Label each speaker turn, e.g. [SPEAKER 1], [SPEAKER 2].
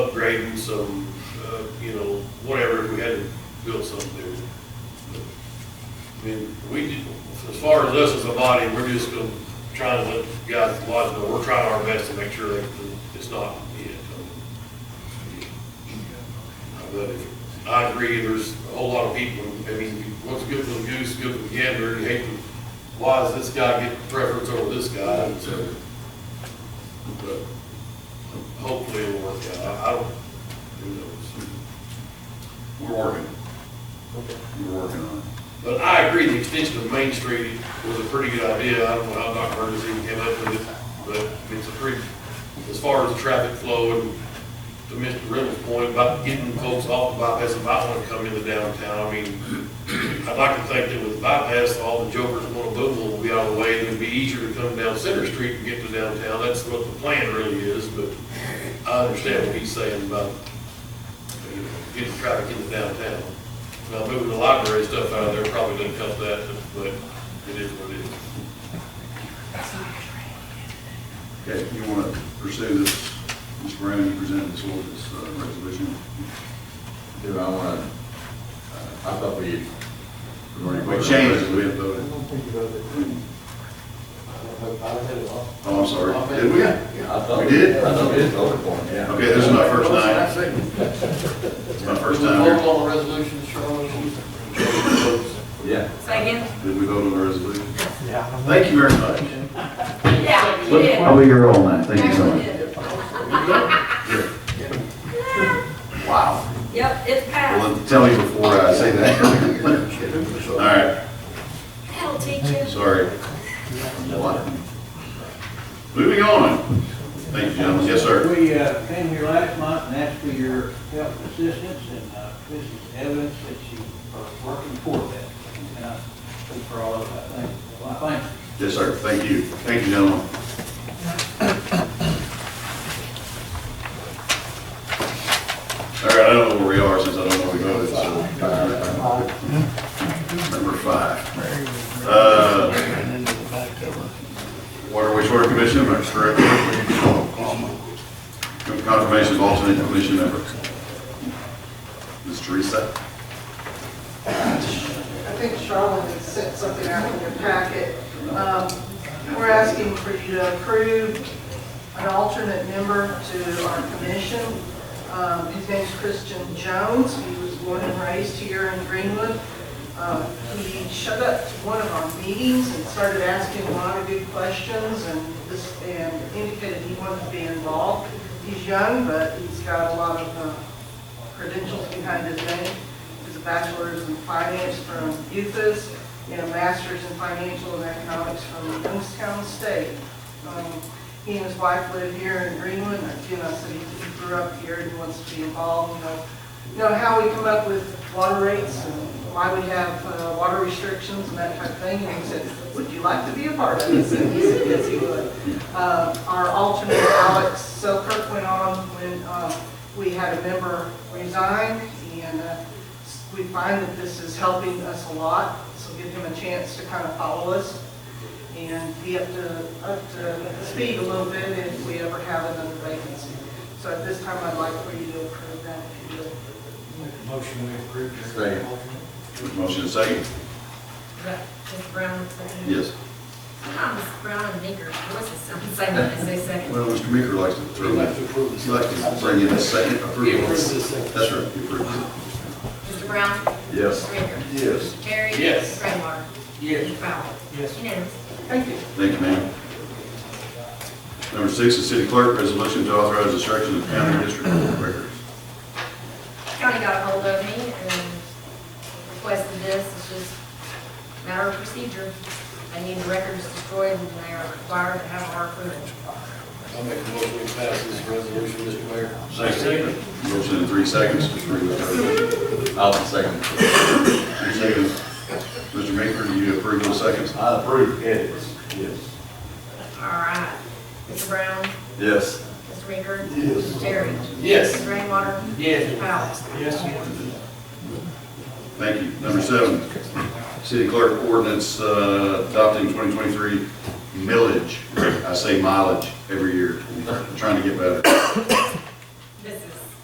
[SPEAKER 1] grading some, uh, you know, whatever, if we had to build something there. But, I mean, we, did- as far as us as a body, we're just gonna try and let the guys at Lodge know, we're trying our best to make sure that it's not it. But if- I agree, there's a whole lot of people, I mean, what's good for the goose, good for the gander, you hate, to- why does this guy get preference over this guy? And so, but hopefully it'll work out, I- I don't, who knows?
[SPEAKER 2] We're working,
[SPEAKER 1] Okay.
[SPEAKER 2] we're working on it.
[SPEAKER 1] But I agree, the extension of Main Street was a pretty good idea. I don't know how Dr. Burgess even came up with it, but it's a pretty, as far as the traffic flow and to Mr. Reynolds' point about getting folks off the bypass and might want to come into downtown, I mean, I'd like to think that with the bypass, all the jokers and little boo will be out of the way, and it'd be easier to come down Center Street and get to downtown. That's what the plan really is, but I understand what he's saying about you know, getting traffic into downtown. Now, moving the library stuff out of there probably didn't help that, but it is what it is.
[SPEAKER 2] Okay, you want to pursue this, Mr. Brown, you presented this ordinance, uh, resolution.
[SPEAKER 3] Do I want to, I thought we, had- we already
[SPEAKER 2] We
[SPEAKER 3] voted.
[SPEAKER 2] changed it, we have
[SPEAKER 4] I
[SPEAKER 2] voted.
[SPEAKER 4] don't think you voted. I don't, I don't have it all.
[SPEAKER 2] Oh, I'm sorry, did we?
[SPEAKER 3] Yeah, I thought.
[SPEAKER 2] We did?
[SPEAKER 3] I thought we did vote for it, yeah.
[SPEAKER 2] Okay, this is my first night, it's my first time here.
[SPEAKER 4] Vote on the resolution, Charlotte.
[SPEAKER 3] Yeah.
[SPEAKER 5] Second?
[SPEAKER 2] Did we vote on the resolution?
[SPEAKER 4] Yeah.
[SPEAKER 2] Thank you very much.
[SPEAKER 5] Yeah, you did.
[SPEAKER 3] I'll be here all night, thank you so much.
[SPEAKER 5] Actually did.
[SPEAKER 3] Wow.
[SPEAKER 5] Yep, it's passed.
[SPEAKER 2] Well, then tell me before I say that. All right,
[SPEAKER 5] That'll teach you.
[SPEAKER 2] sorry. Moving on. Thank you, gentlemen. Yes, sir.
[SPEAKER 6] We uh, came here last month and asked for your help and assistance, and uh, this is evidence that you are working for that. And I speak for all of us, I think, well, I thank you.
[SPEAKER 2] Yes, sir. Thank you. Thank you, gentlemen. All right, I don't know where we are since I don't know where we voted, so. Number five. Uh, Water wastewater commission, am I correct? Confirmation of alternate commission member. Ms. Teresa?
[SPEAKER 7] I think Charlotte had sent something out in your packet. Um, We're asking for you to approve an alternate member to our commission. Um, His name's Christian Jones. He was born and raised here in Greenwood. Um, He showed up to one of our meetings and started asking a lot of good questions and this- and indicated he wanted to be involved. He's young, but he's got a lot of uh, credentials behind his name. He's a bachelor's in finance from UFAS and a master's in financial and economics from Youngstown State. Um, He and his wife live here in Greenwood, and again, I said he he grew up here and he wants to be involved, you know. You know, how we come up with water rates and why we have uh, water restrictions and that type of thing. And he said, would you like to be a part of this? And he said, yes, he would. Uh, Our alternate Alex Selkirk went on when uh, we had a member resign, and uh, we find that this is helping us a lot, so give him a chance to kind of follow us and be up to, up to speed a little bit if we ever have another vacancy. So at this time, I'd like for you to approve that, if you would.
[SPEAKER 4] Motion we approve.
[SPEAKER 3] Second.
[SPEAKER 2] Motion is second?
[SPEAKER 5] Mr. Brown, second.
[SPEAKER 2] Yes.
[SPEAKER 5] Ah, Mr. Brown and Baker, voices sound the same when I say second.
[SPEAKER 2] Well, Mr. Meeker likes to throw
[SPEAKER 4] like to approve this.
[SPEAKER 2] He likes to bring in a second approval. That's right, he approves it.
[SPEAKER 5] Mr. Brown?
[SPEAKER 3] Yes.
[SPEAKER 5] Baker?
[SPEAKER 2] Yes.
[SPEAKER 5] Terry?
[SPEAKER 1] Yes.
[SPEAKER 5] Rainwater?
[SPEAKER 6] Yes.
[SPEAKER 5] Fowler?
[SPEAKER 6] Yes.
[SPEAKER 5] Unanimous.
[SPEAKER 7] Thank you.
[SPEAKER 2] Thank you, ma'am. Number six, the city clerk, resolution to authorize destruction of county district court records.
[SPEAKER 5] County got ahold of me and requested this, it's just a matter of procedure. I need the records destroyed and they are required to have our approval.
[SPEAKER 1] I'll make a motion to pass this resolution, Mr. Mayor.
[SPEAKER 2] Motion in three seconds, Mr. Reed.
[SPEAKER 3] I'll second.
[SPEAKER 2] Three seconds. Mr. Meeker, do you approve those seconds?
[SPEAKER 3] I approve. Yes. Yes.
[SPEAKER 5] All right. Mr. Brown?
[SPEAKER 3] Yes.
[SPEAKER 5] Mr. Baker? Yes. Terry?
[SPEAKER 1] Yes.
[SPEAKER 5] Mr. Rainwater?
[SPEAKER 6] Yes.
[SPEAKER 5] Fowler?
[SPEAKER 6] Yes.
[SPEAKER 2] Thank you. Number seven, city clerk ordinance uh, adopting 2023 millage. I say mileage every year, I'm trying to get better.